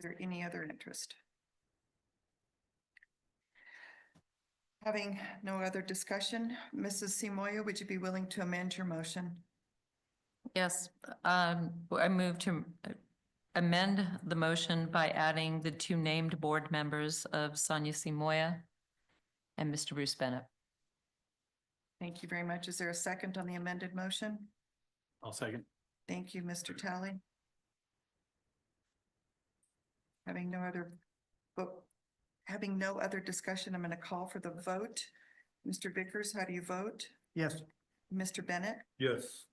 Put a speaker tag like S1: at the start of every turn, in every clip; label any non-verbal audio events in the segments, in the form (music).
S1: there any other interest? Having no other discussion, Mrs. Simoia, would you be willing to amend your motion?
S2: Yes, um, I move to amend the motion by adding the two named board members of Sonia Simoia and Mr. Bruce Bennett.
S1: Thank you very much. Is there a second on the amended motion?
S3: I'll second.
S1: Thank you, Mr. Tally. Having no other, vote, having no other discussion, I'm going to call for the vote. Mr. Vickers, how do you vote?
S3: Yes.
S1: Mr. Bennett,
S3: Yes.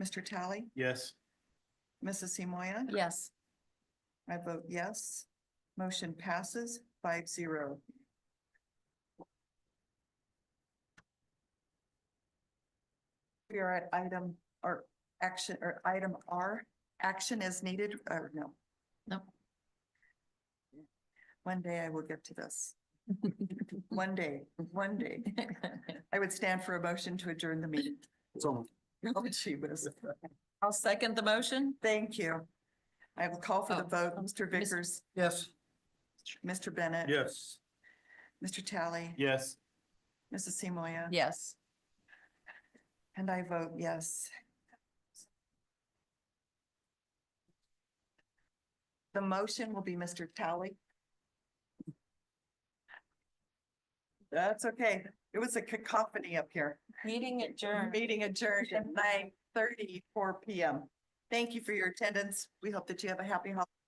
S1: Mr. Tally,
S3: Yes.
S1: Mrs. Simoia?
S2: Yes.
S1: I vote yes. Motion passes five zero. We are at item or action or item R, action as needed, or no.
S2: No.
S1: One day I will get to this.
S2: Mm-hmm.
S1: One day, one
S2: (laughs)
S1: day. I would stand for a motion to adjourn the meeting. Oh, gee whiz.
S2: (laughs) I'll second the motion.
S1: Thank you. I will call for the
S2: Oh,
S1: vote.
S2: um,
S1: Mr.
S2: Miss-
S1: Vickers,
S3: Yes.
S1: Mr. Bennett.
S3: Yes.
S1: Mr. Tally.
S3: Yes.
S1: Mrs. Simoia.
S2: Yes.
S1: And I vote yes. The motion will be Mr. Tally. That's okay. It was a cacophony up here.
S2: Meeting
S1: Meeting adjourned at nine thirty-four PM. Thank you for your attendance. We hope that you have a happy holiday.